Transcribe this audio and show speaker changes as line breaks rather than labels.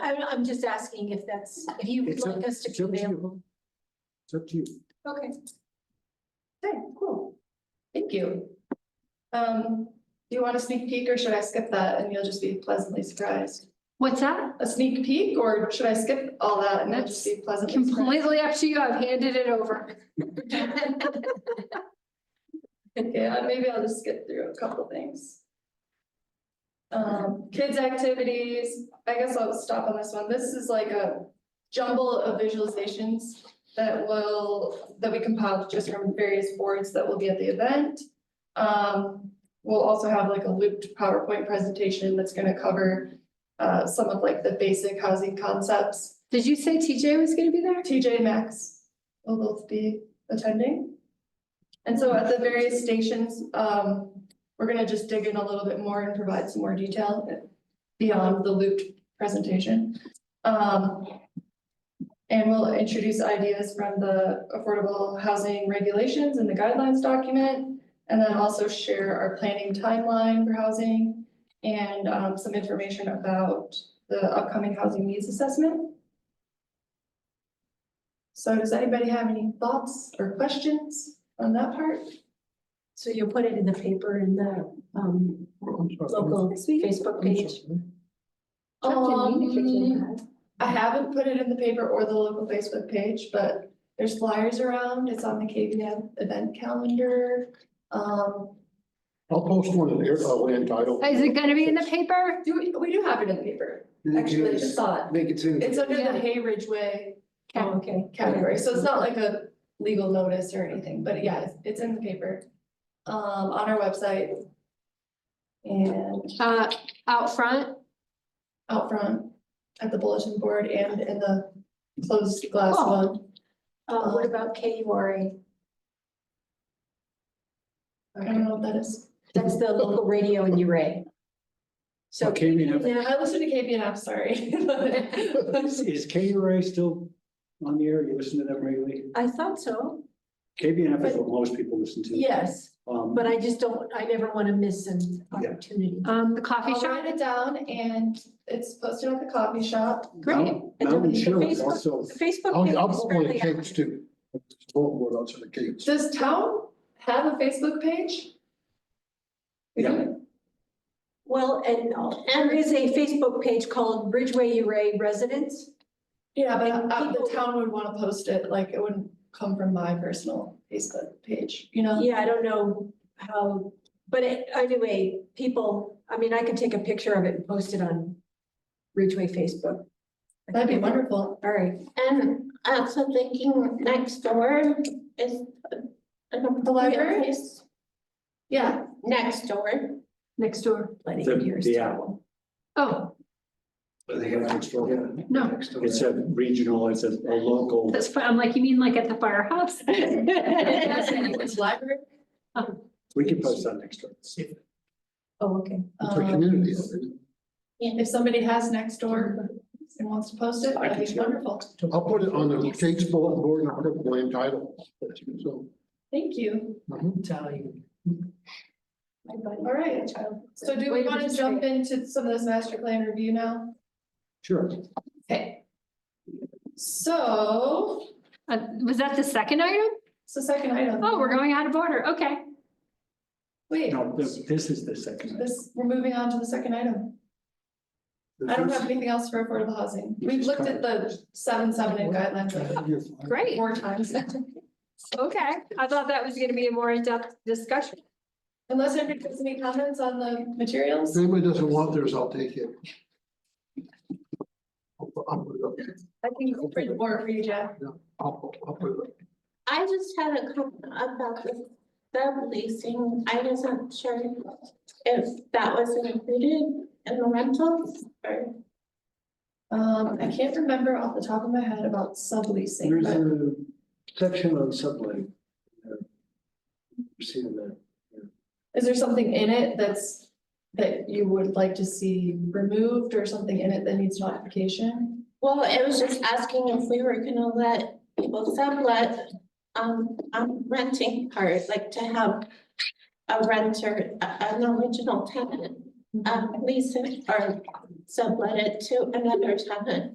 I'm just asking if that's, if you would
It's up-
like us to
it's up to
be
you.
available.
It's up to you.
Okay. Okay, cool.
Thank you. Um, do you want a sneak peek or should I skip that and you'll just be pleasantly surprised?
What's that?
A sneak peek or should I skip all that and then just be pleasantly surprised?
Completely up to you. I've handed it over.
Yeah, maybe I'll just skip through a couple things. Um, kids' activities, I guess I'll stop on this one. This is like a jumble of visualizations that will, that we compiled just from various boards that will be at the event. Um, we'll also have like a looped PowerPoint presentation that's gonna cover uh, some of like the basic housing concepts.
Did you say TJ was gonna be there?
TJ Maxx will both be attending. And so at the various stations, um, we're gonna just dig in a little bit more and provide some more detail beyond the looped presentation. Um, and we'll introduce ideas from the affordable housing regulations and the guidelines document. And then also share our planning timeline for housing and, um, some information about the upcoming housing needs assessment. So does anybody have any thoughts or questions on that part?
So you'll put it in the paper in the um local Facebook page.
Um, I haven't put it in the paper or the local Facebook page, but there's flyers around. It's on the KVM event calendar. Um,
I'll post one in there, uh, land title.
Is it gonna be in the paper?
do we, we do have it in the paper.
You can
Actually, I just saw it.
Make it in.
It's under
Yeah.
the Hay Ridgeway
Oh, okay.
category, so it's not like a legal notice or anything, but yeah, it's- it's in the paper. Um, on our website. And
Uh, out front?
out front at the bulletin board and in the closed glass
Oh.
one.
Uh, what about K U R A?
I don't know what that is.
That's the local radio in Uray. So
Okay, we have-
Yeah, I listen to KPN, I'm sorry.
Is KURA still on the air? You listen to them regularly?
I thought so,
KBNF is what most people listen to.
yes,
Um,
but I just don't, I never want to miss an opportunity.
Um, the coffee
I'll
shop?
write it down and it's posted at the coffee shop.
Great.
Mount- Mountain Chill is
Facebook-
also.
The Facebook.
I'll,
page
I'll
is
put one of
fairly
the cakes
active.
too. Bulletin board, I'll send the cakes.
Does town have a Facebook page? We do.
Well, and and there is a Facebook page called Bridgeway Uray Residents.
Yeah, but uh, the town would want to post it, like it wouldn't come from my personal Facebook page, you know?
Yeah, I don't know how, but it- anyway, people, I mean, I could take a picture of it and post it on Ridgeway Facebook.
That'd be wonderful.
All right,
And also thinking next door is. an appropriate
library?
place.
Yeah,
Next door,
Next door.
plenty
The-
of years.
the
to-
owl.
Oh, no,
It's a regional, it's a, a local,
that's, fi- I'm like, you mean like at the firehouse? Uh,
It's library.
we can post on next door.
Oh, okay.
It's a
Um,
community. isn't
If somebody has next door and wants to post it, that'd be wonderful.
it? I'll put it on the cakes bulletin board and I'll put the land title. So.
Thank you.
mhm.
My buddy.
All right.
Child.
So do
Way
we
to
want to jump into some of this master plan review now?
Sure.
Okay. So,
Uh, was that the second item?
it's the second item.
Oh, we're going out of order. Okay.
Wait,
No, this, this is the second.
this, we're moving on to the second item. I don't have anything else for affordable housing. We've looked at the seven, seven and guidelines like
Great.
four times.
Okay. I thought that was gonna be a more in-depth discussion.
Unless anybody has any comments on the
If
materials?
anybody doesn't want theirs, I'll take it. I'll put- I'll put it up.
I think it's pretty more for you, Jeff.
I'll, I'll put it up.
I just had a comment about the subleasing, I wasn't sure if that was included in the rentals or.
Um, I can't remember off the top of my head about subleasing,
There's
but
a section on subletting. Seen that.
is there something in it that's, that you would like to see removed or something in it that needs modification?
Well, it was just asking if we were gonna let people sublet, um, um, renting part, like to have a renter, a- an original tenant, um, lease it or sublet it to another tenant.